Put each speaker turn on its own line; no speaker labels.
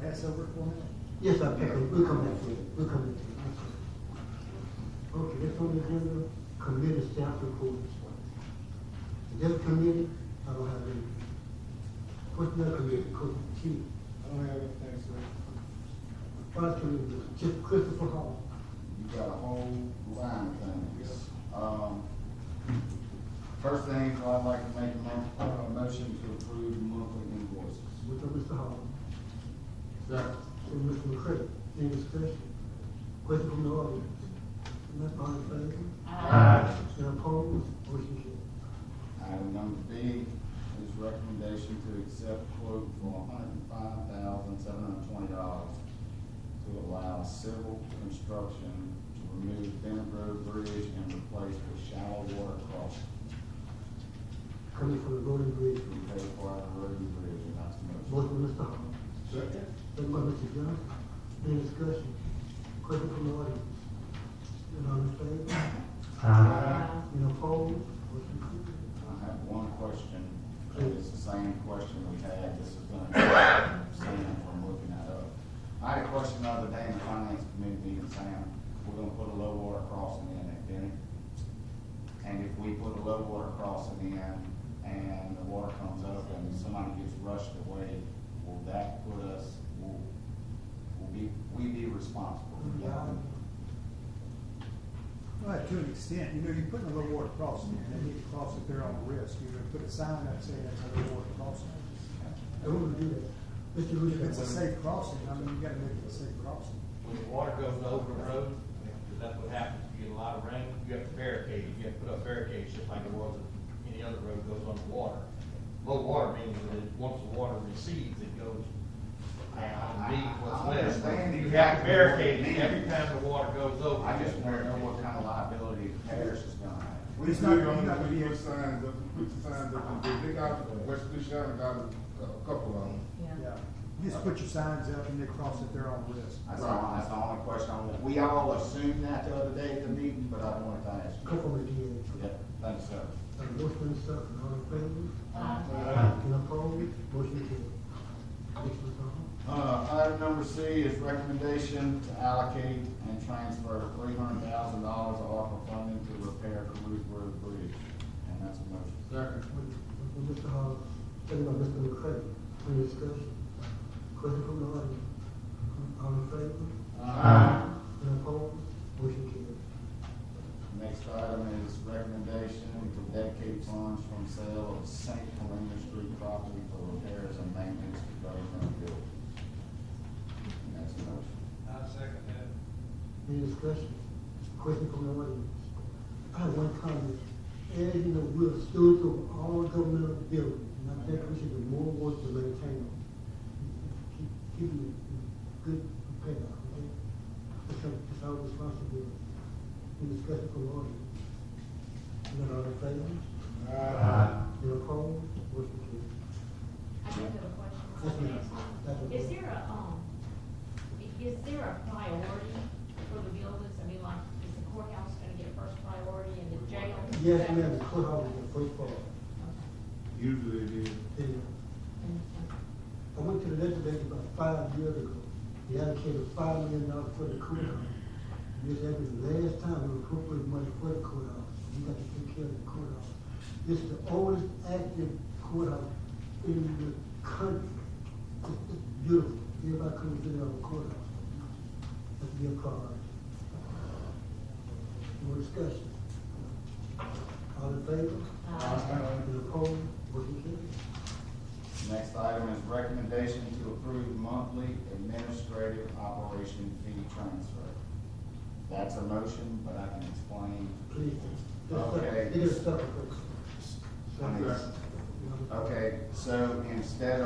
pass over for me?
Yes, I pick up, we'll come back to it, we'll come back to it. Okay, that's on the agenda, committee staff reports. This committee, I don't have any. What's that committee, Coach Chief,
I don't have anything, sir.
Vice Committee, Chief Christopher Hall.
you got a whole line of things. Um, first thing, so I'd like to make a mo- a motion to approve monthly invoices.
With Mr. Hall,
Second.
and Mr. McCray, any discussion? Question from the audience? Not all in favor? Aye. And opposed, motion carried.
Item number B is recommendation to accept quote for hundred and five thousand, seven hundred and twenty dollars to allow civil construction to remove Bennett Road Bridge and replace the shallow water crossing
Coming from the voting bridge,
from Cape Coral Road Bridge, and that's the motion.
both from Mr. Hall.
Second.
Second by Mr. Johnson, any discussion? Question from the audience? And all in favor? And opposed? Motion carried.
I have one question, it's the same question we had, this is gonna be Sam from looking that up. I had a question the other day in the finance committee meeting, Sam, we're gonna put a low water crossing in at Benny. And if we put a low water crossing in and the water comes up and somebody gets rushed away, will that put us, will, will be, we be responsible for that?
Well, to an extent, you know, you're putting a low water crossing, and they need to cross if they're on the risk, you're gonna put a sign up saying that's a low water crossing.
I want to do that. Mr. Rudy.
If it's a safe crossing, I mean, you gotta make it a safe crossing.
When the water goes over the road, 'cause that's what happens, you get a lot of rain, you have to barricade, you have to put up barricades, just like it was if any other road goes on the water. Low water means that it- once the water recedes, it goes down deep what's
I- I- I
left.
understand
You
exactly what it
have to barricade it
means.
every time the water goes over.
I just wanna know what kind of liability the parish is gonna have.
We
It's
could,
not-
I'm
you're not
gonna
gonna
put
be-
the signs up, put the signs up, and they- they got, West Blue Shannon got a a couple of them.
Yeah. You Just put your signs up and they cross if they're on risk.
That's the only, that's the only question I want. We all assumed that the other day at the meeting, but I wanted to ask you.
Couple of years.
Yeah, thanks, sir.
Uh, Motion is second, all in favor?
Um,
Uh,
And opposed? Motion carried. Next, Mr. Hall.
Uh, item number C is recommendation to allocate and transfer three hundred thousand dollars of ARPA funding to repair Caruth Road Bridge. And that's a motion. Second.
Motion from Mr. Hall, second by Mr. McCray. Any discussion? Question from the audience? All in favor? And opposed? Motion carried.
Next item is recommendation to dedicate funds from sale of St. Helena Street property for repairs and maintenance to Bay Front Building. And that's a motion.
I second that.
Any discussion? Question from the audience? I have one comment. As you know, we're stewards of all governmental buildings, and I think we should do more work to maintain them. Keep, keep them in good repair, okay? It's our, it's our responsibility. Any discussion from the audience? None all in favor? Any opposed? Motion carried.
I do have a
Yes,
question.
ma'am. That's okay.
Is there a, um, i- is there a priority for the buildings? I mean, like, is the courthouse gonna get first priority and the jail?
Yes, ma'am, the courthouse is the first part.
Usually it is.
Yeah.
Okay.
I went to the legislature about five years ago. They allocated five million dollars for the courthouse. This happened the last time we appropriated money for the courthouse. We got to take care of the courthouse. It's the oldest active courthouse in the country. It's it's beautiful. Everybody comes in our courthouse. That's their priority. More discussion. All in favor?
Aye.
Any opposed? Motion carries.
Next item is recommendation to approve monthly administrative operation fee transfer. That's a motion, but I can explain.
Please.
Okay.
It is separate.
Okay, so instead of